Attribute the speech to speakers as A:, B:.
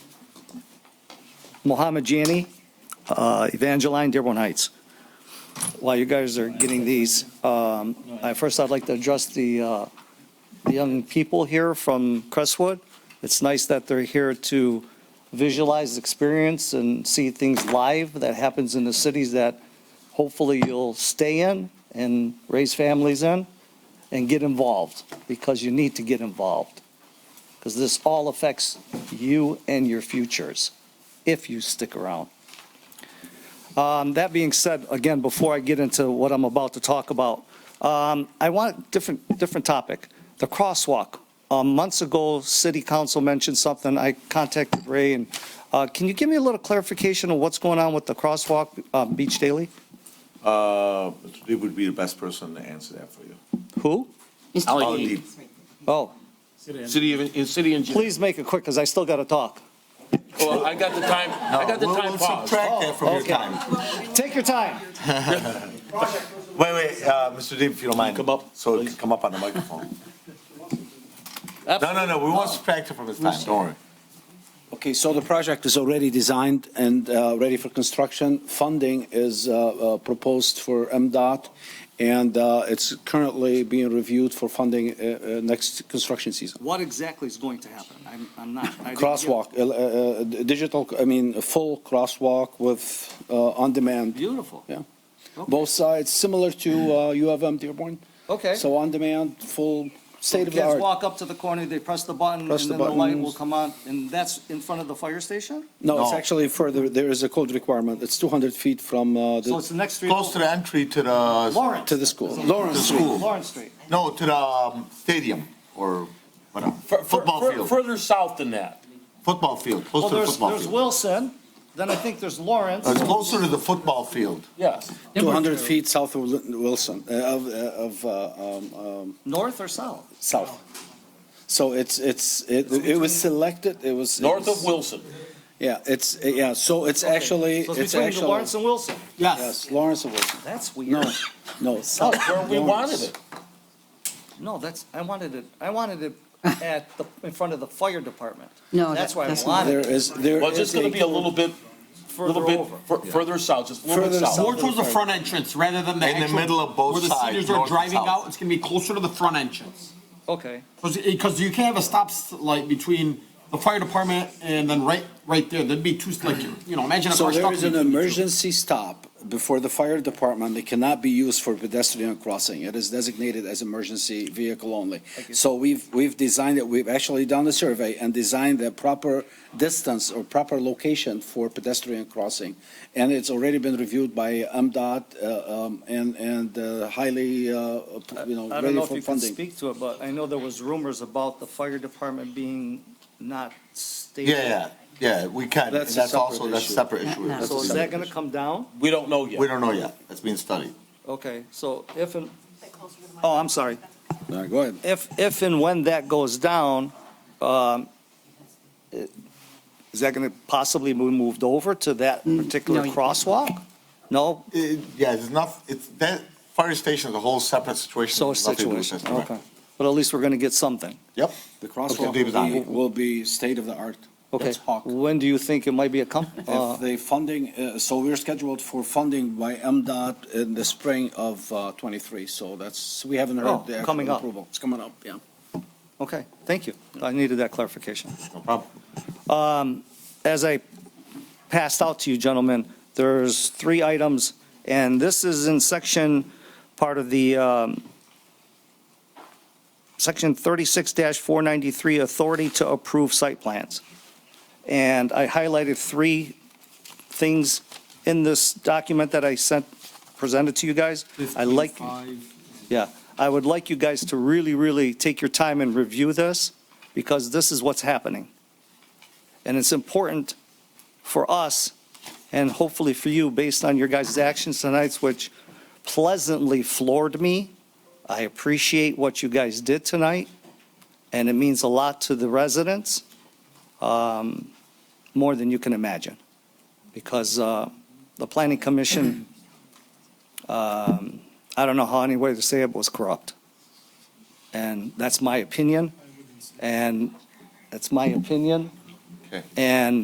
A: Mohammed Jani, uh, Evangeline, Dearborn Heights. While you guys are getting these, um, I- first I'd like to address the uh, the young people here from Crestwood. It's nice that they're here to visualize, experience, and see things live that happens in the cities that hopefully you'll stay in and raise families in and get involved, because you need to get involved. Because this all affects you and your futures, if you stick around. Um, That being said, again, before I get into what I'm about to talk about, um, I want different, different topic, the crosswalk. Um, Months ago, city council mentioned something, I contacted Ray, and uh, can you give me a little clarification of what's going on with the crosswalk, uh, Beach Daily?
B: Uh, It would be the best person to answer that for you.
A: Who?
B: I'll leave.
A: Oh,
C: City of, in city engineer.
A: please make it quick, because I still got to talk.
C: Well, I got the time, I got the
B: We'll-
C: time
B: we'll
C: paused.
B: Subtract that from your
A: Okay.
B: time.
A: Take your time.
B: Wait, wait, uh, Mr. Deeb, if you don't mind. Come up. So it can come up on the microphone. No, no, no, we won't subtract it from his time, don't worry.
D: Okay, so the project is already designed and uh, ready for construction. Funding is uh, uh, proposed for MDOT, and uh, it's currently being reviewed for funding uh, uh, next construction season.
A: What exactly is going to happen? I'm, I'm not. I didn't get-
D: Crosswalk, uh, uh, uh, digital, I mean, a full crosswalk with uh, on-demand,
A: Beautiful.
D: Yeah. both sides, similar to uh, U of M Dearborn.
A: Okay.
D: So on-demand, full,
A: Kids
D: state-of-the-art.
A: walk up to the corner, they press the button, and
D: Press
A: then
D: the
A: the light
D: buttons.
A: will come on, and that's in front of the fire station?
D: No, it's
B: No.
D: actually further, there is a code requirement. It's 200 feet from uh,
A: So it's
D: the,
A: the next street.
B: Close to the entry to the,
A: Lawrence.
D: to the school.
B: to the
D: Lawrence Street.
B: school,
A: Lawrence Street.
B: no, to the um, stadium or whatever,
C: Fur- fur-
B: football
C: fur-
B: field,
C: Further south than that.
B: football field,
A: Well,
B: close to the
A: there's,
B: football
A: there's
B: field.
A: Wilson, then I think there's Lawrence.
D: Uh,
B: It's closer to the football field.
C: Yes.
D: 200 feet south of Wil- Wilson, uh, of, uh, of, uh, um, um,
A: North or south?
D: south. So it's, it's, it it was selected, it was.
C: North of Wilson.
D: Yeah, it's, yeah, so it's
A: Okay.
D: actually,
A: So
D: it's
A: between the
D: actually.
A: Lawrence and Wilson?
D: Yes, Lawrence of Wilson.
A: That's
D: No,
A: weird.
D: no.
C: That's
D: south
C: where
D: of
C: we
D: Lawrence.
C: wanted it.
A: No, that's, I wanted it, I wanted it at the, in front of the fire department.
E: No,
A: That's
E: that-
A: why I
E: that's not-
A: wanted
D: There
A: it
D: is, there is.
C: Well, it's just gonna be a little bit,
A: further
C: little bit
A: over.
C: fur- further south, just a little bit
D: Further
C: south.
D: south.
F: More towards the front entrance rather than the
B: In the
F: actual-
B: middle of both sides,
F: Where the seniors
B: north
F: are
B: and
F: driving
B: south.
F: out, it's gonna be closer to the front entrance.
A: Okay,
F: Because you can't have a stop s- light between the fire department and then right, right there, there'd be two, like, you know, imagine a
D: So
F: car
D: there
F: stuck.
D: is an emergency stop before the fire department that cannot be used for pedestrian crossing. It is designated as emergency vehicle only. So we've, we've designed it, we've actually done the survey and designed the proper distance or proper location for pedestrian crossing. And it's already been reviewed by MDOT uh, um, and, and uh, highly, uh, you know,
A: I don't know
D: ready
A: if
D: for
A: you can
D: funding.
A: speak to it, but I know there was rumors about the fire department being not stable.
B: Yeah, yeah, yeah, we can,
D: That's a
B: that's also,
D: separate
B: that's a
D: issue.
B: separate issue.
E: Not- not-
A: So is that gonna come down?
C: We don't know yet.
B: We don't know yet, that's being studied.
A: Okay, so if, and- oh, I'm sorry.
D: Uh, Go ahead.
A: If, if and when that goes down, um, it- is that going to possibly be moved over to that particular
E: no, you-
A: crosswalk? No?
B: It- Yeah, it's not, it's, that fire station is a whole separate situation.
A: So
B: Nothing to do with
A: situation,
B: this, correct.
A: okay. But at least we're going to get something,
B: Yep.
D: The
B: Dave is on
D: crosswalk
B: it.
D: will be state of the art.
A: okay.
D: That's Hawk.
A: When do you think it might be a com, uh,
D: If the funding, uh, so we're scheduled for funding by MDOT in the spring of uh, '23, so that's, we haven't
A: Oh,
D: heard the
A: coming
D: actual
A: up.
D: approval. It's coming up, yeah.
A: okay, thank you. I needed that clarification.
B: No problem.
A: Um, As I passed out to you gentlemen, there's three items, and this is in section, part of the, um, section 36-493, authority to approve site plans. And I highlighted three things in this document that I sent, presented to you guys. I like, yeah, I would like you guys to really, really take your time and review this, because this is what's happening. And it's important for us and hopefully for you, based on your guys' actions tonight, which pleasantly floored me. I appreciate what you guys did tonight, and it means a lot to the residents, um, more than you can imagine. Because uh, the planning commission, um, I don't know how any way to say it, was corrupt. And that's my opinion, and that's my opinion.
B: Okay.
A: And